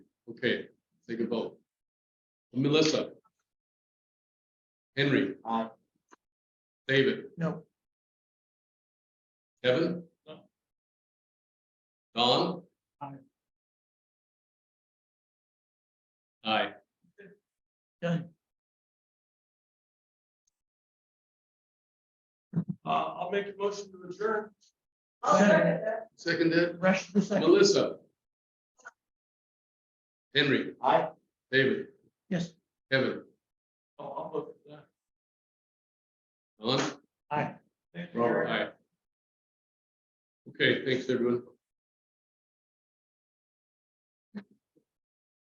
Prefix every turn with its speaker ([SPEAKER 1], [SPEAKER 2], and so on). [SPEAKER 1] Okay, take a vote. Melissa. Henry.
[SPEAKER 2] Aye.
[SPEAKER 1] David.
[SPEAKER 2] No.
[SPEAKER 1] Kevin.
[SPEAKER 2] No.
[SPEAKER 1] Don.
[SPEAKER 2] Aye.
[SPEAKER 1] Aye.
[SPEAKER 2] Uh, I'll make a motion to adjourn.
[SPEAKER 3] I'll second that.
[SPEAKER 1] Seconded,
[SPEAKER 2] Rush the second.
[SPEAKER 1] Melissa. Henry,
[SPEAKER 2] Aye.
[SPEAKER 1] David,
[SPEAKER 2] Yes.
[SPEAKER 1] Kevin,
[SPEAKER 2] Oh, I'll look at that.
[SPEAKER 1] Don.
[SPEAKER 2] Aye.
[SPEAKER 1] Robert, aye. Okay, thanks, everyone.